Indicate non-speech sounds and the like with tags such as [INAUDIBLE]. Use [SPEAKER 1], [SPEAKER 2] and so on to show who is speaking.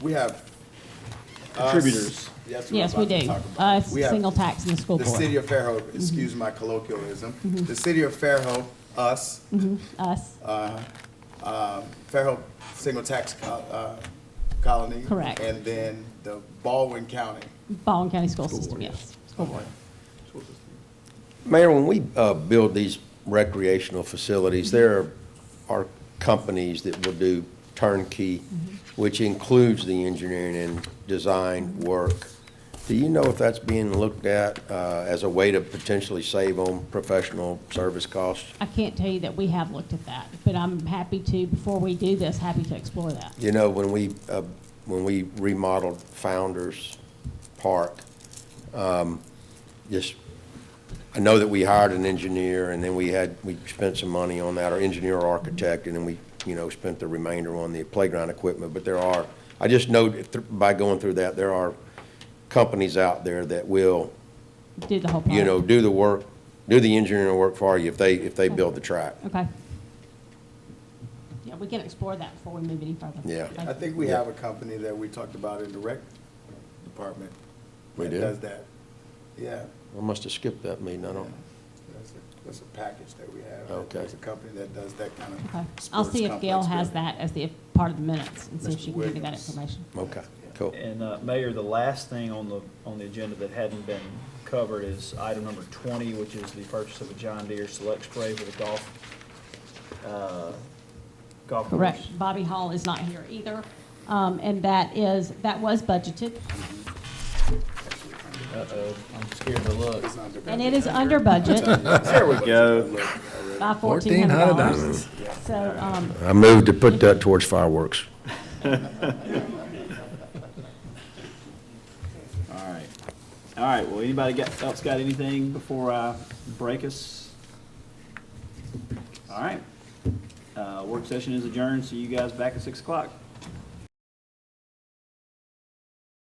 [SPEAKER 1] We have. us-
[SPEAKER 2] Contributors.
[SPEAKER 1] Yes, we're
[SPEAKER 3] Yes, we
[SPEAKER 1] about to
[SPEAKER 3] do.
[SPEAKER 1] talk about it.
[SPEAKER 3] Us,
[SPEAKER 1] We have
[SPEAKER 3] single tax and the school
[SPEAKER 1] The city
[SPEAKER 3] board.
[SPEAKER 1] of Fairhope, excuse my colloquialism,
[SPEAKER 3] Mm-hmm.
[SPEAKER 1] the city of Fairhope, us,
[SPEAKER 3] Us,
[SPEAKER 1] uh, Fairhope Single Tax Co- uh, Colony.
[SPEAKER 3] Correct.
[SPEAKER 1] And then the Baldwin County.
[SPEAKER 3] Baldwin County School System, yes. School board.
[SPEAKER 4] Mayor, when we uh, build these recreational facilities, there are companies that will do turnkey, which includes the engineering and design work. Do you know if that's being looked at uh, as a way to potentially save on professional service costs?
[SPEAKER 3] I can't tell you that we have looked at that, but I'm happy to, before we do this, happy to explore that.
[SPEAKER 4] You know, when we, uh, when we remodeled Founder's Park, um, just, I know that we hired an engineer, and then we had, we spent some money on that, or engineer or architect, and then we, you know, spent the remainder on the playground equipment, but there are, I just know that thr- by going through that, there are companies out there that will,
[SPEAKER 3] Do the whole.
[SPEAKER 4] you know,
[SPEAKER 3] project.
[SPEAKER 4] do the work, do the engineering work for you if they, if they build the track.
[SPEAKER 3] Okay. Yeah, we can explore that before we move any further.
[SPEAKER 4] Yeah.
[SPEAKER 3] Thank
[SPEAKER 1] I
[SPEAKER 3] you.
[SPEAKER 1] think we have a company that we talked about in the rec department.
[SPEAKER 4] We
[SPEAKER 1] that
[SPEAKER 4] do?
[SPEAKER 1] Does that. Yeah.
[SPEAKER 4] I must have skipped that meeting, I don't.
[SPEAKER 1] That's a- That's a package that we have.
[SPEAKER 4] Okay.
[SPEAKER 1] There's a company that does that kind of.
[SPEAKER 3] Okay. I'll
[SPEAKER 1] sports
[SPEAKER 3] see if Gail
[SPEAKER 1] complex
[SPEAKER 3] has
[SPEAKER 1] building.
[SPEAKER 3] that as the part of the minutes and see if
[SPEAKER 1] Mr.
[SPEAKER 3] she can give me that
[SPEAKER 1] Williams.
[SPEAKER 3] information.
[SPEAKER 4] Okay, cool.
[SPEAKER 2] And uh, Mayor, the last thing on the, on the agenda that hadn't been covered is item number 20, which is the purchase of a John Deere Select Spray for the golf, uh, golf course.
[SPEAKER 3] Correct. Bobby Hall is not here either. Um, and that is, that was budgeted
[SPEAKER 2] Uh-oh, I'm scared to look.
[SPEAKER 1] It's under
[SPEAKER 3] and
[SPEAKER 1] budget.
[SPEAKER 3] it is
[SPEAKER 1] [LAUGHS]
[SPEAKER 3] under budget
[SPEAKER 1] There we go.
[SPEAKER 3] by fourteen hundred dollars. So, um,
[SPEAKER 4] I move to put that towards fireworks.
[SPEAKER 2] All right. All right, well, anybody got, else got anything before I break us? All right. Uh, Work session is adjourned, so you guys back at 6 o'clock.